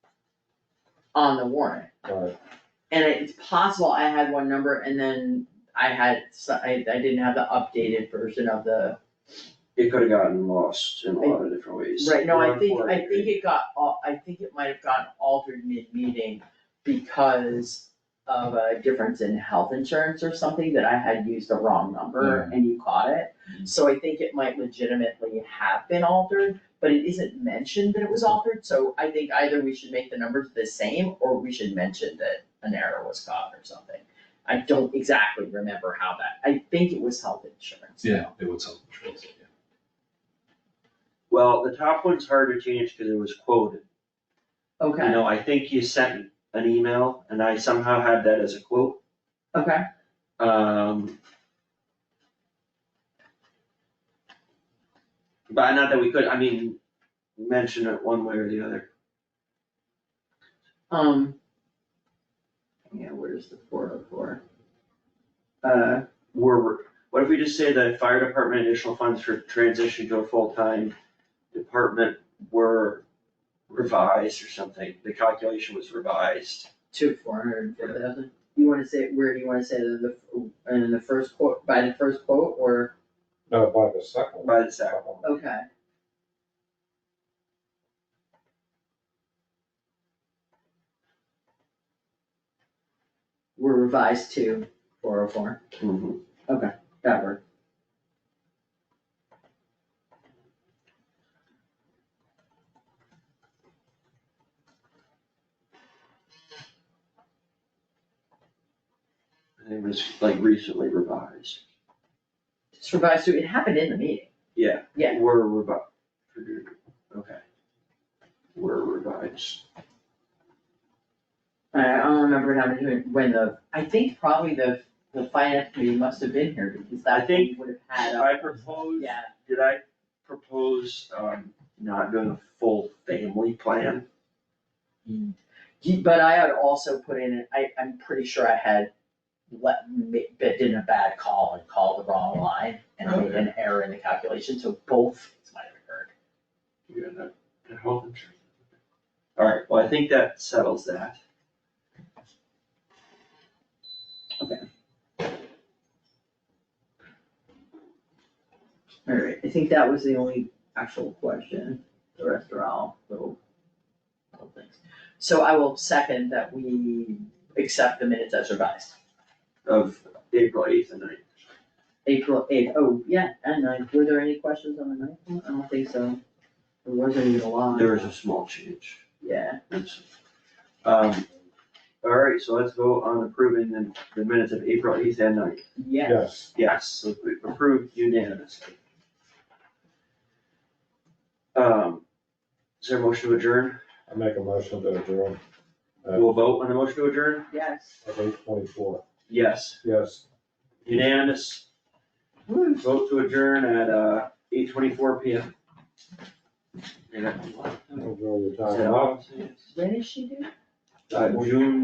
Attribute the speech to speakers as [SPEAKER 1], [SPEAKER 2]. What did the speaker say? [SPEAKER 1] on the warrant.
[SPEAKER 2] Alright.
[SPEAKER 1] And it's possible I had one number and then I had, s- I, I didn't have the updated version of the,
[SPEAKER 2] It could have gotten lost in a lot of different ways.
[SPEAKER 1] right, no, I think, I
[SPEAKER 2] 140.
[SPEAKER 1] think it got, al- I think it might have gotten altered mid-meeting because of a difference in health insurance or something that I had used the wrong number and you caught it. So I think it might legitimately have been altered, but it isn't mentioned that it was altered, so I think either we should make the numbers the same or we should mention that an error was caught or something. I don't exactly remember how that, I think it was health insurance.
[SPEAKER 3] Yeah, it would sell the trees, yeah.
[SPEAKER 2] Well, the top one's hard to change because it was quoted. You
[SPEAKER 1] Okay,
[SPEAKER 2] know, I think you sent an email and I somehow had that as a quote.
[SPEAKER 1] okay,
[SPEAKER 2] Um. But not that we could, I mean, mention it one way or the other.
[SPEAKER 1] um. Yeah, where's the four oh four? Uh,
[SPEAKER 2] We're, what if we just say that fire department additional funds for transition to a full-time department were revised or something? The calculation was revised.
[SPEAKER 1] two four hundred and four thousand, you wanna say, where do you wanna say that the, and in the first quote, by the first quote, or,
[SPEAKER 4] No, by the second.
[SPEAKER 2] By the second.
[SPEAKER 1] okay. Were revised to four oh four,
[SPEAKER 2] Mm-hmm.
[SPEAKER 1] that worked.
[SPEAKER 2] And It was like recently revised.
[SPEAKER 1] Just revised to, it happened in the meeting,
[SPEAKER 2] Yeah.
[SPEAKER 1] Yeah.
[SPEAKER 2] Were revised. Okay. Were revised.
[SPEAKER 1] I I don't remember how many, when the, I think probably the, the finance committee must have been here, because
[SPEAKER 2] I
[SPEAKER 1] that
[SPEAKER 2] think-
[SPEAKER 1] thing would have had a,
[SPEAKER 2] I proposed,
[SPEAKER 1] yeah,
[SPEAKER 2] did I propose, um, not doing a full family plan?
[SPEAKER 1] He- But I had also put in, I, I'm pretty sure I had let, ma- but did a bad call and called the wrong line and made an error in the calculation, so both things might have occurred.
[SPEAKER 2] You got that, that health insurance. Alright, well, I think that settles that.
[SPEAKER 1] Alright, I think that was the only actual question, the rest are all little, little things. So I will second that we accept the minutes as revised,
[SPEAKER 2] Of April eighth and ninth.
[SPEAKER 1] April eighth, oh, yeah, and ninth, were there any questions on the ninth one? I don't think so, there wasn't even a lot.
[SPEAKER 2] There was a small change.
[SPEAKER 1] Yeah,
[SPEAKER 2] Oops. Um, alright, so let's vote on approving the, the minutes of April eighth and ninth.
[SPEAKER 1] yeah.
[SPEAKER 4] Yes,
[SPEAKER 2] Yes, so we approved unanimously. Um, is there a motion to adjourn?
[SPEAKER 4] I make a motion to adjourn at
[SPEAKER 2] We'll vote on the motion to adjourn?
[SPEAKER 1] Yes.
[SPEAKER 4] eight twenty-four.
[SPEAKER 2] Yes,
[SPEAKER 4] Yes,
[SPEAKER 2] unanimous. Vote to adjourn at, uh, eight twenty-four P M.
[SPEAKER 4] enjoy your time off.
[SPEAKER 1] When is she due?
[SPEAKER 2] June